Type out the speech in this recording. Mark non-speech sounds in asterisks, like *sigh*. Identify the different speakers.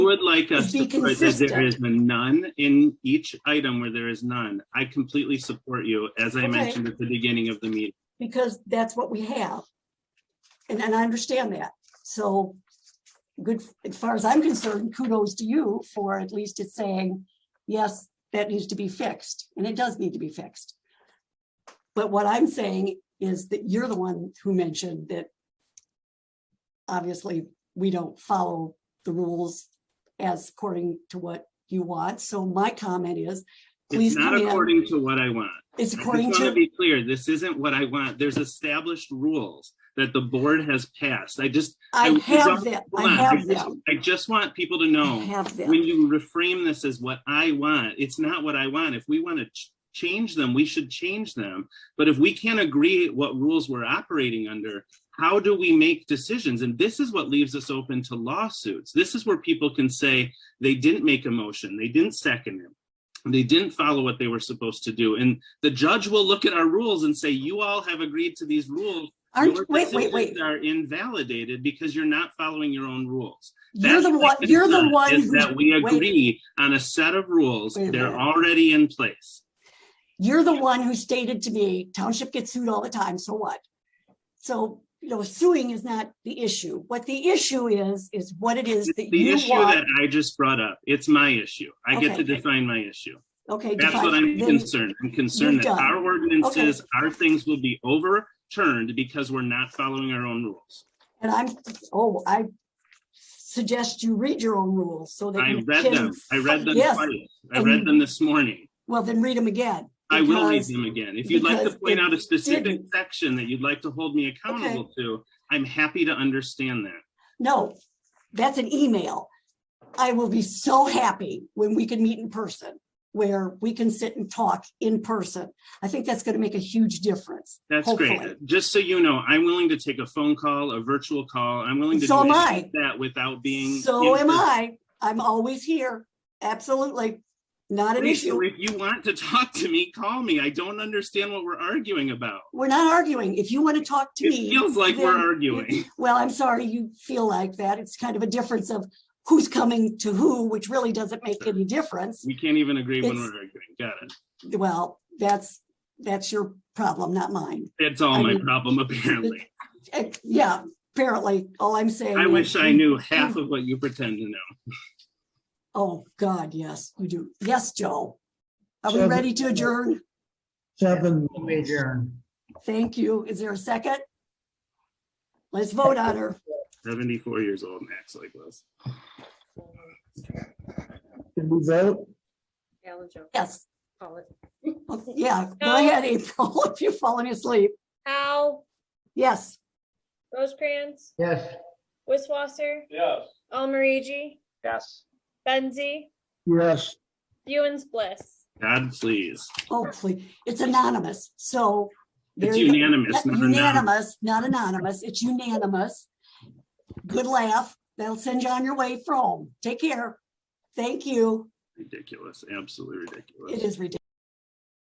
Speaker 1: would like us to
Speaker 2: Be
Speaker 1: put that there
Speaker 2: consistent.
Speaker 1: is a none in each item where there is none. I completely support you, as I
Speaker 2: Okay.
Speaker 1: mentioned at the beginning of the meeting.
Speaker 2: because that's what we have. And, and I understand that. So good, as far as I'm concerned, kudos to you for at least it's saying, yes, that needs to be fixed, and it does need to be fixed. But what I'm saying is that you're the one who mentioned that obviously we don't follow the rules as according to what you want. So my comment is,
Speaker 1: It's
Speaker 2: please
Speaker 1: not
Speaker 2: come in.
Speaker 1: according to what I want.
Speaker 2: It's
Speaker 1: I just
Speaker 2: according
Speaker 1: want to
Speaker 2: to,
Speaker 1: be clear, this isn't what I want. There's established rules that the board has passed. I just,
Speaker 2: I
Speaker 1: I-
Speaker 2: have that, I
Speaker 1: hold on. I
Speaker 2: have
Speaker 1: just-
Speaker 2: that.
Speaker 1: I just want people to
Speaker 2: I
Speaker 1: know,
Speaker 2: have them.
Speaker 1: when you reframe this as what I want, it's not what I want. If we want to ch- change them, we should change them. But if we can't agree what rules we're operating under, how do we make decisions? And this is what leaves us open to lawsuits. This is where people can say they didn't make a motion, they didn't second it. They didn't follow what they were supposed to do. And the judge will look at our rules and say, you all have agreed to these rules. Your
Speaker 2: Aren't, wait, wait,
Speaker 1: decisions
Speaker 2: wait.
Speaker 1: Are invalidated because you're not following your own rules.
Speaker 2: You're
Speaker 1: That's
Speaker 2: the
Speaker 1: my
Speaker 2: one, you're the
Speaker 1: concern,
Speaker 2: one,
Speaker 1: Is
Speaker 2: who-
Speaker 1: that we
Speaker 2: wait.
Speaker 1: agree on a set of rules,
Speaker 2: Wait a
Speaker 1: they're
Speaker 2: minute.
Speaker 1: already in place.
Speaker 2: you're the one who stated to me, township gets sued all the time, so what? So, you know, suing is not the issue. What the issue is, is what it is that
Speaker 1: The
Speaker 2: you
Speaker 1: issue that
Speaker 2: want.
Speaker 1: I just brought up, it's my issue. I get to
Speaker 2: Okay.
Speaker 1: define my issue.
Speaker 2: Okay,
Speaker 1: That's what
Speaker 2: define-
Speaker 1: I'm
Speaker 2: then-
Speaker 1: concerned. I'm concerned
Speaker 2: you're
Speaker 1: that
Speaker 2: done.
Speaker 1: our ordinances, our things will be overturned because we're not following our own rules.
Speaker 2: and I'm, oh, I suggest you read your own rules so that.
Speaker 1: I
Speaker 2: you
Speaker 1: read
Speaker 2: can
Speaker 1: them. I read
Speaker 2: fi-
Speaker 1: them
Speaker 2: yes,
Speaker 1: twice. I
Speaker 2: and
Speaker 1: read
Speaker 2: you-
Speaker 1: them this morning.
Speaker 2: Well, then read them again.
Speaker 1: I will read
Speaker 2: because-
Speaker 1: them again. If you'd like to
Speaker 2: because
Speaker 1: point
Speaker 2: it
Speaker 1: out a specific
Speaker 2: didn't.
Speaker 1: section that you'd like to hold me accountable to, I'm happy to understand that.
Speaker 2: No, that's an email. I will be so happy when we can meet in person, where we can sit and talk in person. I think that's gonna make a huge difference.
Speaker 1: That's
Speaker 2: Hopefully.
Speaker 1: great. Just so you know, I'm willing to take a phone call, a virtual call. I'm willing to
Speaker 2: So
Speaker 1: do
Speaker 2: am
Speaker 1: any of that without being.
Speaker 2: So
Speaker 1: in
Speaker 2: am
Speaker 1: person.
Speaker 2: I. I'm always here. Absolutely. Not an
Speaker 1: Great. So
Speaker 2: issue.
Speaker 1: If you want to *laughs* talk to me, call me. I don't understand what we're arguing about.
Speaker 2: We're not arguing. If you want to talk to
Speaker 1: It
Speaker 2: me.
Speaker 1: feels like we're
Speaker 2: then-
Speaker 1: arguing.
Speaker 2: Well, I'm sorry you feel like that. It's kind of a difference of who's coming to who, which really doesn't make any difference.
Speaker 1: We can't even agree when
Speaker 2: It's-
Speaker 1: we're arguing. Got it.
Speaker 2: Well, that's, that's your problem, not mine.
Speaker 1: It's all
Speaker 2: I
Speaker 1: my
Speaker 2: mean,
Speaker 1: problem, apparently.
Speaker 2: Uh, *laughs* Yeah, apparently, all I'm saying.
Speaker 1: I
Speaker 2: is-
Speaker 1: wish I knew half of what you pretend to know.
Speaker 2: Oh, God, yes, you do. Yes, Joe. Are we
Speaker 3: Seven.
Speaker 2: ready to adjourn?
Speaker 3: Seven.
Speaker 4: We adjourn.
Speaker 2: Thank you. Is there a second? Let's vote on her.
Speaker 1: Seventy-four years old, Max like this.
Speaker 3: Did we vote?
Speaker 5: Alan Joe,
Speaker 2: Yes,
Speaker 5: call it.
Speaker 2: Oh, yeah, go
Speaker 5: No.
Speaker 2: ahead, April, *laughs* if you've fallen asleep.
Speaker 5: Howe,
Speaker 2: Yes,
Speaker 5: Rosecrans,
Speaker 4: Yes.
Speaker 5: Wisswasser,
Speaker 6: Yes.
Speaker 5: Almarigi,
Speaker 6: Yes.
Speaker 5: Benzie,
Speaker 3: Yes.
Speaker 5: Buens Bliss.
Speaker 1: God, please.
Speaker 2: oh, please. It's anonymous, so. there
Speaker 1: It's
Speaker 2: you go.
Speaker 1: unanimous. not anonymous.
Speaker 2: Unanimous, not anonymous. It's unanimous. Good laugh. That'll send you on your way from home. Take care. Thank you.
Speaker 1: Ridiculous, absolutely ridiculous.
Speaker 2: It is ridiculous.